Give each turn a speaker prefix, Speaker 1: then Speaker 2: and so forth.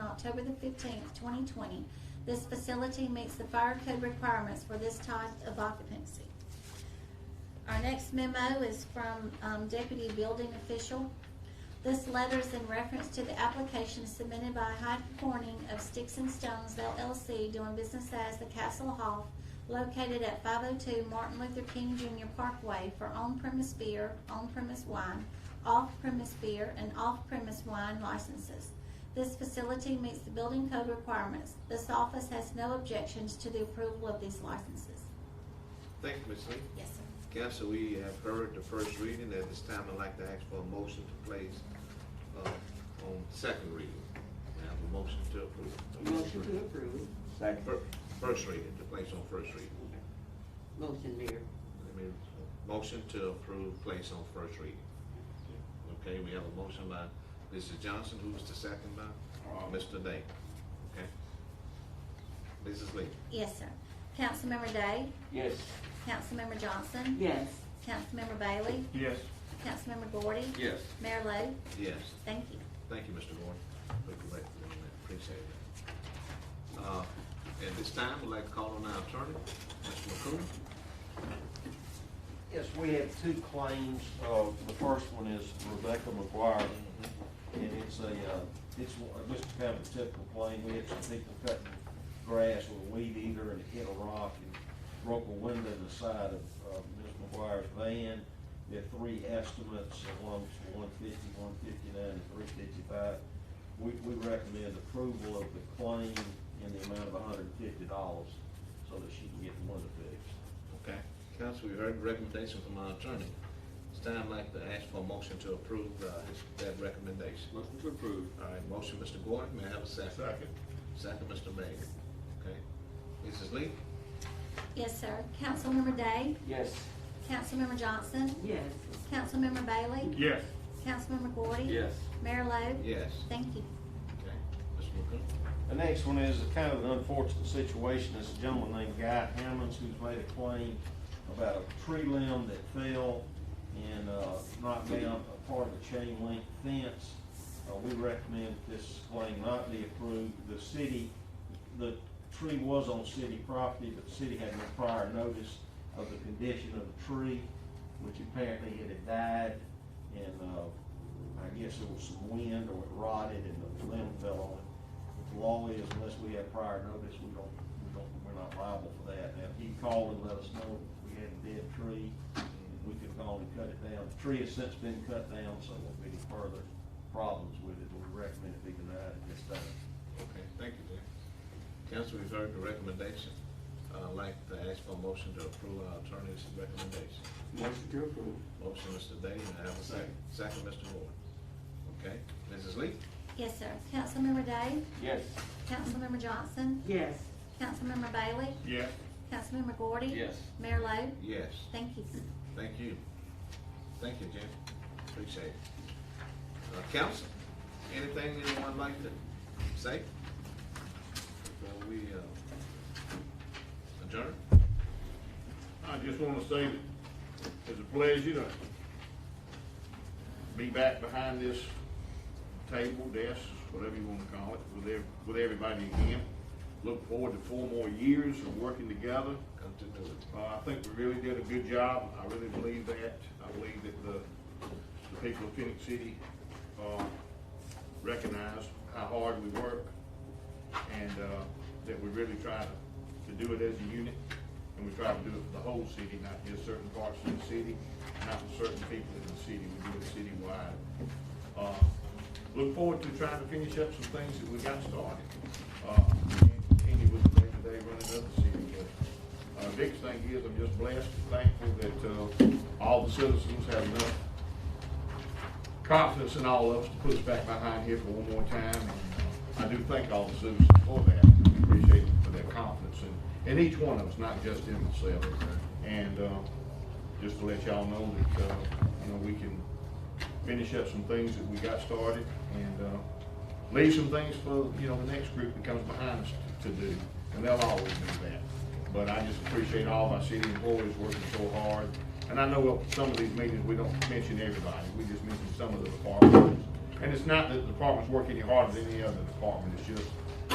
Speaker 1: October the fifteenth, twenty twenty. This facility meets the fire code requirements for this type of occupancy. Our next memo is from um, Deputy Building Official. This letter is in reference to the application submitted by Hyde Corning of Sticks and Stones LLC doing business as the Castle Hall located at five oh two Martin Luther King Jr. Parkway for on-premise beer, on-premise wine, off-premise beer, and off-premise wine licenses. This facility meets the building code requirements. This office has no objections to the approval of these licenses.
Speaker 2: Thank you, Ms. Lee.
Speaker 1: Yes, sir.
Speaker 2: Council, we have heard the first reading. At this time, I'd like to ask for a motion to place uh, on second reading. May I have a motion to approve?
Speaker 3: Motion to approve.
Speaker 2: Fir- First reading, to place on first reading.
Speaker 3: Motion, Mayor.
Speaker 2: Let me- Motion to approve, place on first reading. Okay, we have a motion by Mrs. Johnson, who was the second by Mr. Day. Okay. Mrs. Lee.
Speaker 1: Yes, sir. Councilmember Day,
Speaker 4: Yes.
Speaker 1: Councilmember Johnson.
Speaker 3: Yes.
Speaker 1: Councilmember Bailey,
Speaker 4: Yes.
Speaker 1: Councilmember Gordy.
Speaker 4: Yes.
Speaker 1: Mayor Lo,
Speaker 2: Yes.
Speaker 1: thank you.
Speaker 2: Thank you, Mr. Gordon. Look away for a minute. Appreciate that. Uh, At this time, we'd like to call on our attorney, Mr. McCool.
Speaker 4: Yes, we have two claims. Uh, the first one is Rebecca McGuire,
Speaker 2: Mm-hmm.
Speaker 4: and it's a, uh, it's one- just kind of a typical claim. We had some people cutting grass with a weed eater and it hit a rock and broke a window in the side of, uh Ms. McGuire's van. There are three estimates, one's one fifty, one fifty-nine, and three fifty-five. We, we recommend approval of the claim in the amount of hundred and fifty dollars so that she can get the window fixed.
Speaker 2: Okay. Counsel, we heard the recommendation from our attorney. It's time I'd like to ask for a motion to approve uh, his- that recommendation.
Speaker 5: Motion to approve.
Speaker 2: All right, motion, Mr. Gordon, may I have a second?
Speaker 5: Second.
Speaker 2: Second, Mr. Bailey. Okay. Mrs. Lee?
Speaker 1: Yes, sir. Councilmember Day,
Speaker 4: Yes.
Speaker 1: Councilmember Johnson,
Speaker 3: Yes.
Speaker 1: Councilmember Bailey,
Speaker 5: Yes.
Speaker 1: Councilmember Gordy.
Speaker 5: Yes.
Speaker 1: Mayor Lo.
Speaker 2: Yes.
Speaker 1: Thank you.
Speaker 2: Okay. Mr. McCool?
Speaker 4: The next one is a kind of an unfortunate situation. It's a gentleman named Guy Hammonds who's made a claim about a tree limb that fell and uh, knocked down a part of the chain link fence. Uh, We recommend this claim not be approved. The city, the tree was on city property, but the city had no prior notice of the condition of the tree, which apparently it had died. And uh, I guess there was some wind or it rotted and the limb fell on it. But The law is unless we have prior notice, we don't, we don't, we're not liable for that. Now, he called and let us know we had a dead tree, and we could have gone and cut it down. The tree has since been cut down, so there won't be any further problems with it. We recommend it be denied at this time.
Speaker 2: Okay, thank you, Jay. Counsel, we've heard the recommendation. Uh, I'd like to ask for a motion to approve our attorney's recommendation.
Speaker 5: Motion to approve.
Speaker 2: Motion, Mr. Day, may I have a second? Second, Mr. Moore. Okay, Mrs. Lee?
Speaker 1: Yes, sir. Councilmember Day,
Speaker 4: Yes.
Speaker 1: Councilmember Johnson,
Speaker 3: Yes.
Speaker 1: Councilmember Bailey,
Speaker 5: Yes.
Speaker 1: Councilmember Gordy.
Speaker 5: Yes.
Speaker 1: Mayor Lo,
Speaker 2: Yes,
Speaker 1: thank you.
Speaker 2: thank you. Thank you, Jim. Appreciate it. Uh, counsel, anything anyone like to say? Before we, uh, adjourn?
Speaker 6: I just want to say that it's a pleasure to be back behind this table, desk, whatever you want to call it, with ev- with everybody again. Look forward to four more years of working together.
Speaker 2: Come to do it.
Speaker 6: Uh, I think we really did a good job. I really believe that. I believe that the, the people of Phoenix City, uh, recognize how hard we work and, uh, that we really try to, to do it as a unit. And we try to do it for the whole city, not just certain parts of the city, not for certain people in the city. We do it citywide. Uh, Look forward to trying to finish up some things that we got started. Uh, and Continue with the day-to-day running of the city, but uh, biggest thing is, I'm just blessed and thankful that, uh, all the citizens have enough confidence in all of us to put us back behind here for one more time. And uh, I do thank all the citizens for that, appreciate them for their confidence in, in each one of us, not just in myself. And, uh, just to let y'all know that, uh, you know, we can finish up some things that we got started and, uh, leave some things for, you know, the next group that comes behind us to do, and they'll always do that. But I just appreciate all my city employees working so hard, and I know at some of these meetings, we don't mention everybody, we just mention some of the departments. And it's not that the departments work any harder than any other department, it's just